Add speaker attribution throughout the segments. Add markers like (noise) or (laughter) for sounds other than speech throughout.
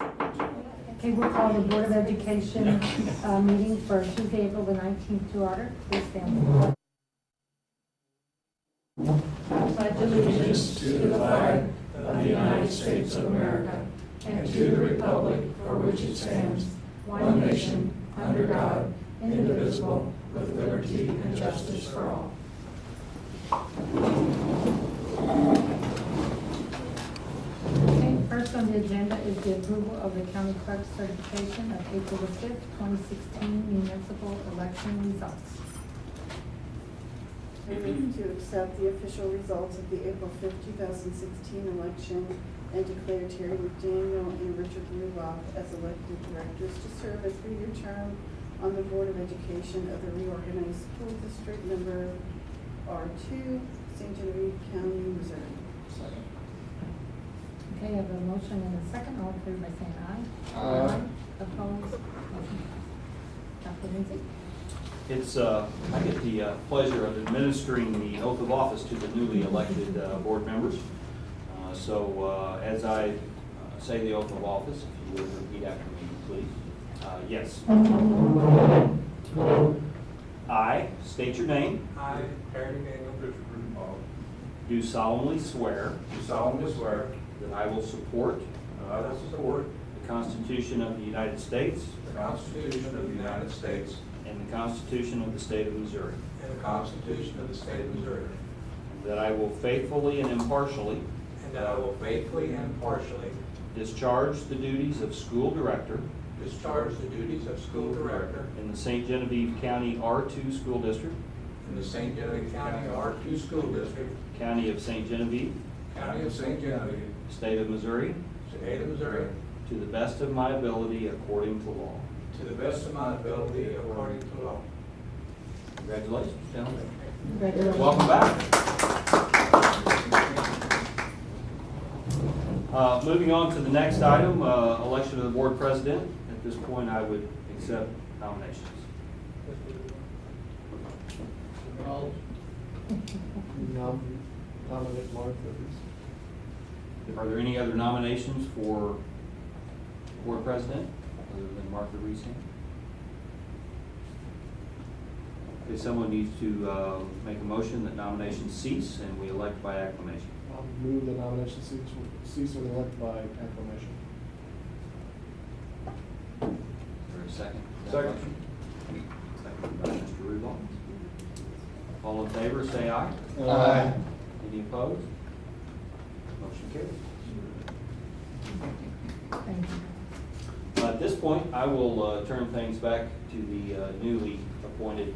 Speaker 1: Okay, we'll call the Board of Education uh, meeting for Tuesday, April the 19th to order. Please stand.
Speaker 2: pledge allegiance to the flag of the United States of America and to the republic for which it stands, one nation, under God, indivisible, with liberty and justice for all.
Speaker 1: Okay, first on the agenda is the approval of the county clerk's certification of April the 5th, 2016 municipal election results.
Speaker 3: I move to accept the official results of the April 5, 2016 election and declare Terry McDaniel and Richard Ruoff as elected directors to serve a three-year term on the Board of Education of the reorganized school district number R2, St. Genevieve County, Missouri.
Speaker 1: Okay, I have a motion and a second. All in favor by saying aye.
Speaker 4: Aye.
Speaker 1: Opposed? Motion passes. Dr. Lindsay?
Speaker 5: It's, uh, I get the uh, pleasure of administering the oath of office to the newly elected uh, board members. Uh, So uh, as I uh, say the oath of office, if you would repeat after me, please. Uh, Yes. I state your name,
Speaker 6: I, Harry Daniel Richard Rudenbaugh,
Speaker 5: do solemnly swear
Speaker 6: do solemnly swear
Speaker 5: that I will support
Speaker 6: that I will support
Speaker 5: the Constitution of the United States
Speaker 6: the Constitution of the United States
Speaker 5: and the Constitution of the State of Missouri,
Speaker 6: and the Constitution of the State of Missouri,
Speaker 5: and that I will faithfully and impartially
Speaker 6: and that I will faithfully and impartially
Speaker 5: discharge the duties of school director
Speaker 6: discharge the duties of school director
Speaker 5: in the St. Genevieve County R2 School District,
Speaker 6: in the St. Genevieve County R2 School District,
Speaker 5: County of St. Genevieve,
Speaker 6: County of St. Genevieve,
Speaker 5: State of Missouri,
Speaker 6: State of Missouri,
Speaker 5: to the best of my ability according to law.
Speaker 6: to the best of my ability according to law.
Speaker 5: Congratulations, gentlemen.
Speaker 1: Congratulations.
Speaker 5: Welcome back. Uh, Moving on to the next item, uh, election of the board president. At this point, I would accept nominations.
Speaker 4: I'll (laughs) nom- nominate Martha as
Speaker 5: Are there any other nominations for board president other than Martha Reese? If someone needs to uh, make a motion that nominations cease and we elect by acclamation.
Speaker 4: I'll move the nomination cease, cease and elect by acclamation.
Speaker 5: Is there a second?
Speaker 6: Second.
Speaker 5: Second by Mr. Rudolph. All in favor, say aye.
Speaker 4: Aye.
Speaker 5: Any opposed? Motion carries.
Speaker 1: Thank you.
Speaker 5: Uh, At this point, I will uh, turn things back to the uh, newly appointed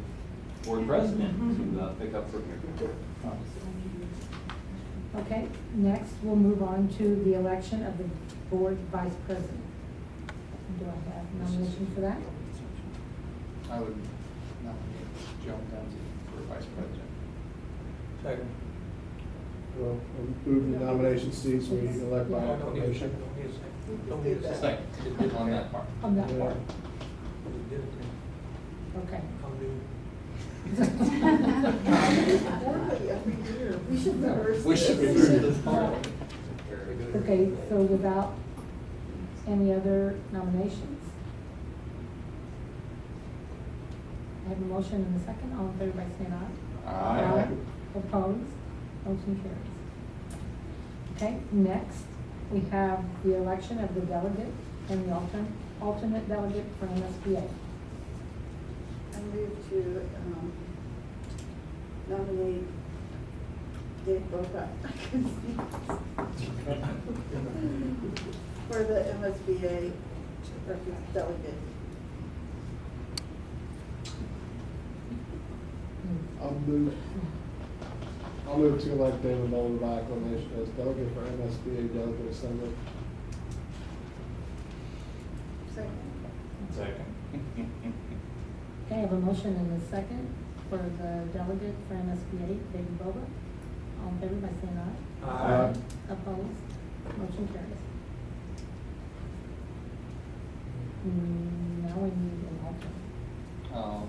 Speaker 5: board president to uh, pick up from here.
Speaker 1: Okay, next, we'll move on to the election of the board vice president. Do I have nomination for that?
Speaker 7: I would nominate Joan Dunsey for vice president.
Speaker 6: Second.
Speaker 4: Well, I'll move the nomination cease, we elect by
Speaker 6: Don't need a (laughs)
Speaker 4: acclamation.
Speaker 6: second. Don't need a second. Don't need a second.
Speaker 7: Second, on that part.
Speaker 1: On that part,
Speaker 6: We did it.
Speaker 1: okay.
Speaker 6: Come do.
Speaker 3: Everybody, every year, we should reverse
Speaker 7: We should
Speaker 3: this.
Speaker 7: reverse this part.
Speaker 6: Very good.
Speaker 1: (laughs) Okay, so without any other nominations? I have a motion and a second, all in favor by saying aye.
Speaker 7: Aye.
Speaker 1: Opposed, motion carries. Okay, next, we have the election of the delegate and the alternate, alternate delegate for MSBA.
Speaker 3: I move to um, nominate Dave (laughs) Bocott for the MSBA rep- delegate.
Speaker 4: I'll move, I'll move to elect David Mullen by acclamation as delegate for MSBA delegate assembly.
Speaker 3: Second.
Speaker 1: Okay, I have a motion and a second for the delegate for MSBA, David Boba. All in favor by saying aye.
Speaker 6: Aye.
Speaker 1: Opposed? Motion carries. Hmm, Mm, Now we need an alternate.
Speaker 7: (laughs) Um,